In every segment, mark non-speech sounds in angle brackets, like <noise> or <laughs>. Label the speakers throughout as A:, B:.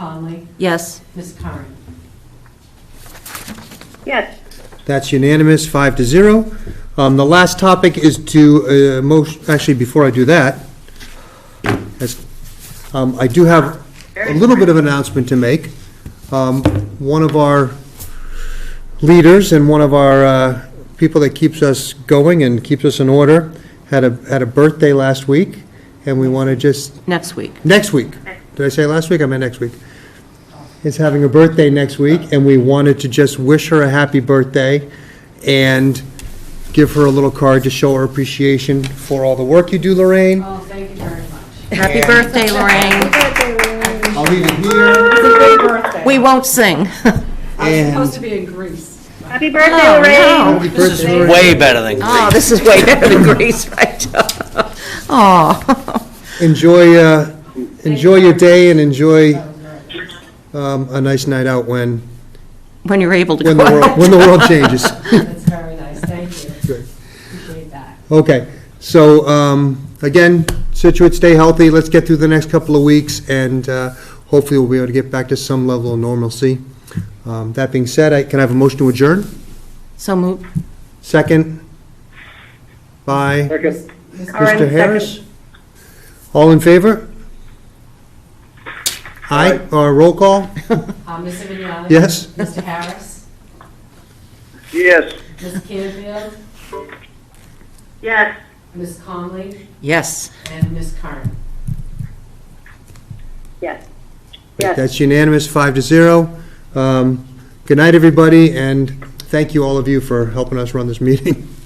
A: Conley?
B: Yes.
A: Ms. Karen?
C: yes,
D: That's unanimous, five to zero. Um, The last topic is to, uh, motion, actually, before I do that, as- um, I do have a little bit of announcement to make. Um, One of our leaders and one of our uh, people that keeps us going and keeps us in order had a, had a birthday last week, and we want to just
B: Next week.
D: next week. Did I say last week? I meant next week. Is having a birthday next week, and we wanted to just wish her a happy birthday and give her a little card to show her appreciation for all the work you do, Lorraine.
A: Oh, thank you very much.
B: Happy birthday, Lorraine.
D: I'll leave it here.
B: We won't <laughs> sing.
A: I was
D: And-
A: supposed to be in Greece.
C: happy birthday,
B: Oh,
C: Lorraine.
B: no.
D: Happy birthday, Lorraine.
E: Way better than
B: Oh,
E: Greece.
B: this is way better than Greece, right? Oh,
D: Enjoy, uh, enjoy your day and enjoy um, a nice night out when,
B: <laughs> when you're able to
D: when the
B: go
D: world, when the world changes.
A: That's very nice, thank you.
D: Good.
A: Appreciate that.
D: Okay, so, um, again, Situate, stay healthy, let's get through the next couple of weeks, and, uh, hopefully we'll be able to get back to some level of normalcy. Um, that being said, I, can I have a motion to adjourn?
B: So moved.
D: Second? By
C: Alright,
D: Mr.
C: second.
D: Harris? All in favor? Aye, or roll call?
A: Uh, Ms. Vignani?
D: Yes?
A: Mr. Harris?
F: Yes.
A: Ms. Canfield?
C: Yes.
A: Ms. Conley?
B: Yes.
A: And Ms. Karen?
C: Yes. Yes.
D: That's unanimous, five to zero. Um, good night, everybody, and thank you all of you for helping us run this meeting. <laughs>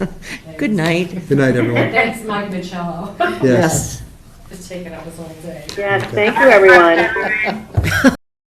B: Good night.
D: Good night, everyone.
A: Thanks, Mike Michello. <laughs>
D: Yes.
B: Yes.
A: It's taken up this whole day.
C: Yes, thank you, everyone.